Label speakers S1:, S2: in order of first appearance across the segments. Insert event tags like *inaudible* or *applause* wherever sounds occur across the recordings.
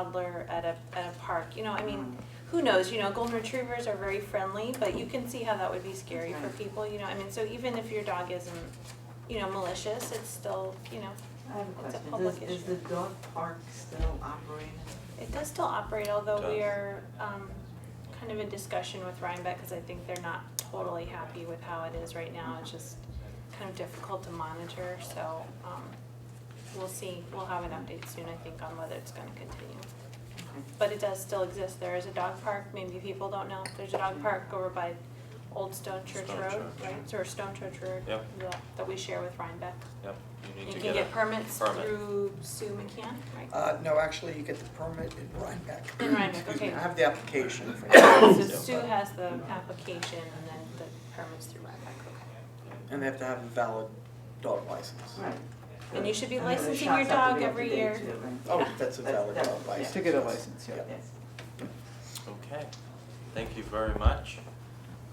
S1: toddler at a, at a park, you know, I
S2: Um,
S1: mean, who knows, you know, golden retrievers are very friendly, but you can see how that would be scary for
S2: Right.
S1: people, you know, I mean, so even if your dog isn't, you know, malicious, it's still, you know,
S2: I have a
S1: It's a
S2: question,
S1: public
S2: does, is the
S1: issue.
S2: dog park still operating?
S1: it does still operate, although we
S3: Does.
S1: are, um, kind of in discussion with Rhinebeck, cause I think they're not totally happy with how it is right now, it's just kind of difficult to monitor, so, um, we'll see, we'll have an update soon, I think, on whether it's gonna continue.
S2: Okay.
S1: But it does still exist. There is a dog park, maybe people don't know. There's a dog park over by Old Stone Church
S3: Stone
S1: Road,
S3: Church.
S1: right? Or Stone Church Road.
S3: Yep.
S1: yeah, That we share with Rhinebeck.
S3: Yep, you
S1: You
S3: need to
S1: can
S3: get a
S1: get permits
S3: permit.
S1: through Sue McCann, right?
S4: Uh, no, actually, you get the permit in Rhinebeck.
S1: In Rhinebeck,
S4: Excuse me,
S1: okay.
S4: I have the application
S1: *coughs*
S4: for *coughs*
S1: So
S4: that.
S1: Sue has the application and then the permits through Rhinebeck, okay.
S4: And they have to have a valid dog license.
S2: Right.
S1: And you should be
S2: And then the
S1: licensing
S2: shops
S1: your
S2: have to
S1: dog
S2: be up to
S1: every
S2: date
S1: year.
S2: too, right?
S4: Oh, that's a
S2: That's-
S4: valid
S2: that's-
S4: dog
S2: yeah.
S4: license.
S5: To get a license, yeah.
S4: Yeah.
S2: Yes.
S3: Okay, thank you very much.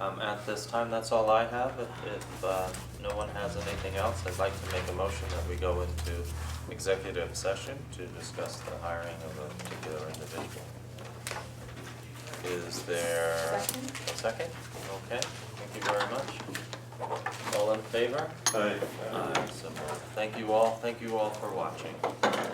S3: Um, at this time, that's all I have. If, if, uh, no one has anything else, I'd like to make a motion that we go into executive session to discuss the hiring of a particular individual. Is there a
S1: Second.
S3: second? Okay, thank you very much. All in favor? Aye. so, thank you all, thank you all for watching.